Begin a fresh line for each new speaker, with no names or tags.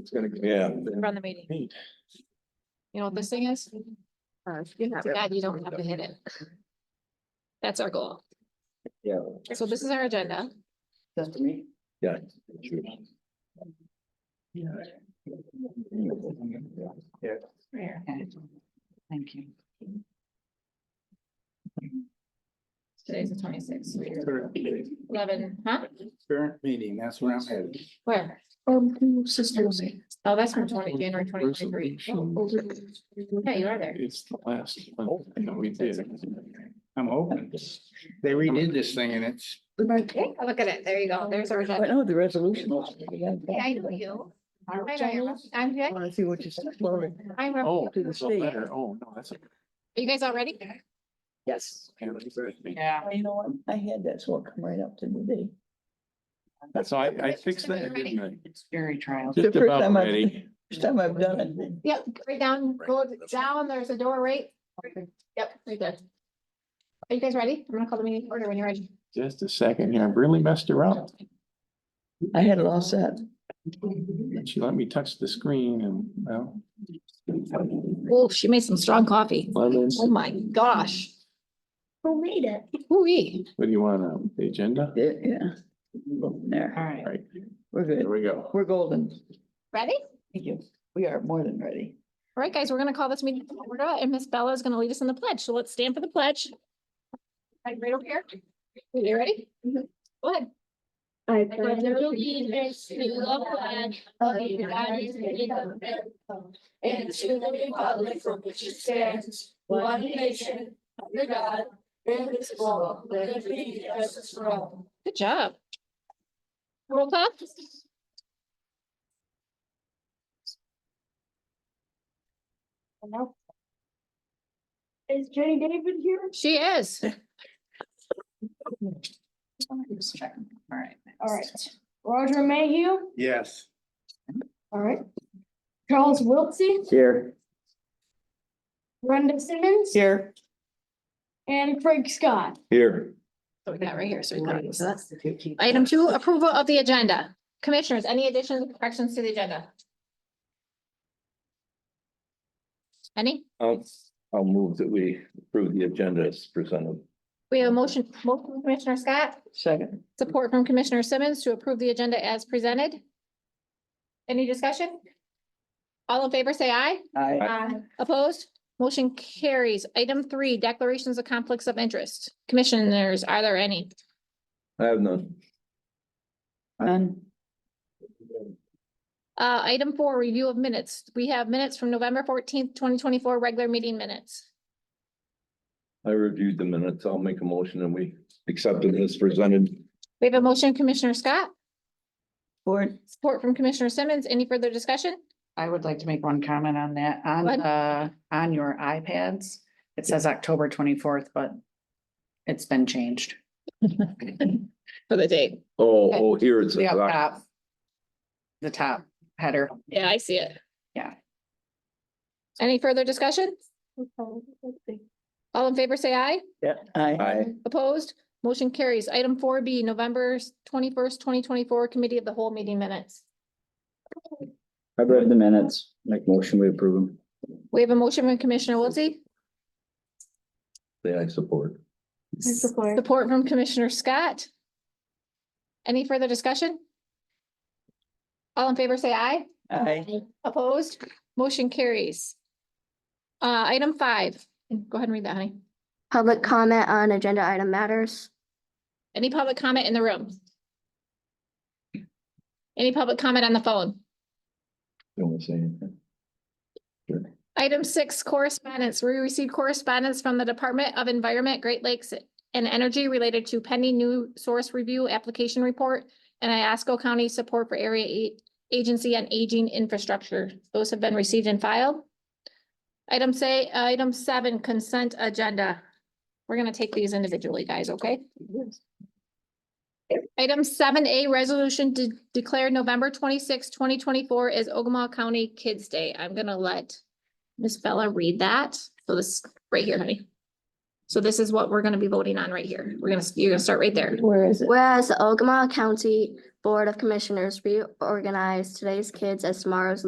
it's gonna. go.
Yeah.
run the meeting.
Neat.
You know what this thing is? Too bad you don't have to hit it. That's our goal.
Yeah.
So this is our agenda.
That's to me.
Yeah. sure.
Okay. Thank you.
Today's the twenty-sixth. Eleven, huh?
Current meeting, that's where I'm headed.
Where?
Um, sisters.
Oh, that's from twenty, January twenty twenty-three. Yeah, you are there.
It's the last one
Oh.
that we did. I'm hoping. They redid this thing and it's,
Oh, Look at it. There you go. There's our agenda.
Oh, the resolution.
Hey, I know you. I know you. I'm good.
I see what you're saying.
I'm, Rob.
oh,
To the
it's a
state.
letter. Oh, no, that's. a-
are you guys all ready?
Yes.
Yeah.
You know what? I had that, so it come right up to today.
That's, I, I fixed that, didn't I?
It's very trial.
The
Just
first
about
time I've-
ready.
First time I've done it.
Yep, right down, go down. There's a door, right? Yep, right there. Are you guys ready? I'm gonna call the meeting to order when you're ready.
Just a second here. I really messed her up.
I had it all set.
And She let me touch the screen and, well.
Oh, she made some strong coffee.
Lemons,
Oh, my gosh.
Who made it?
Ooh-wee.
what do you want, um, the agenda?
Yeah. There,
All right.
Right,
we're
here
good.
we go.
We're golden.
Ready?
Thank you. We are more than ready.
All right, guys, we're gonna call this meeting to order and Miss Bella is gonna lead us in the pledge. So let's stand for the pledge. Right right over here. You ready?
Mm-hmm.
Go ahead.
I
I
pledge
allegiance to the flag of the United States of America and to the republic for which it stands, one nation, under God, indivisible, with liberty and justice for all.
Good job. Roll call.
Is Jenny David here?
She is.
Just checking. All right.
All right. Roger Mayhew?
Yes.
All right. Charles Wiltsey,
Here.
Brenda Simmons,
Here.
and Craig Scott.
Here,
So we got right here. So we got it. So that's item two, approval of the agenda. Commissioners, any additions, corrections to the agenda? Any?
I'll, I'll move that we approve the agenda as presented.
We have a motion, motion from Commissioner Scott,
Second.
support from Commissioner Simmons to approve the agenda as presented. Any discussion? All in favor, say aye.
I,
Opposed? Motion carries. Item three, declarations of conflicts of interest. Commissioners, are there any?
I have none.
none.
Uh, item four, review of minutes. We have minutes from November fourteenth, twenty twenty-four, regular meeting minutes.
I reviewed the minutes. I'll make a motion and we accept it as presented.
We have a motion, Commissioner Scott,
Or
support from Commissioner Simmons. Any further discussion?
I would like to make one comment on that, on,
Go ahead.
uh, on your iPads. It says October twenty-fourth, but it's been changed.
For the date.
Oh, oh, here it's.
The up top. The top header.
Yeah, I see it.
Yeah.
Any further discussion? All in favor, say aye.
Yeah, I,
Aye.
Opposed? Motion carries. Item four B, November twenty-first, twenty twenty-four, Committee of the Whole Meeting Minutes.
I've read the minutes, make motion, we approve them.
We have a motion from Commissioner Wiltie,
Say I support.
support.
support from Commissioner Scott. Any further discussion? All in favor, say aye.
I,
Opposed? Motion carries. Uh, item five, go ahead and read that, honey.
Public comment on agenda item matters.
Any public comment in the room? Any public comment on the phone?
Don't want to say anything.
Item six, correspondence. We received correspondence from the Department of Environment, Great Lakes and Energy related to pending new source review application report and Iasco County support for area A- agency on aging infrastructure. Those have been received and filed. Item say, item seven, consent agenda. We're gonna take these individually, guys, okay? Item seven A, resolution to declare November 26, twenty twenty-four as Ogama County Kids Day. I'm gonna let Ms. Bella read that. So this, right here, honey. So this is what we're gonna be voting on right here. We're gonna, you're gonna start right there.
where is it?
Whereas the Ogama County Board of Commissioners reorganized today's kids as tomorrow's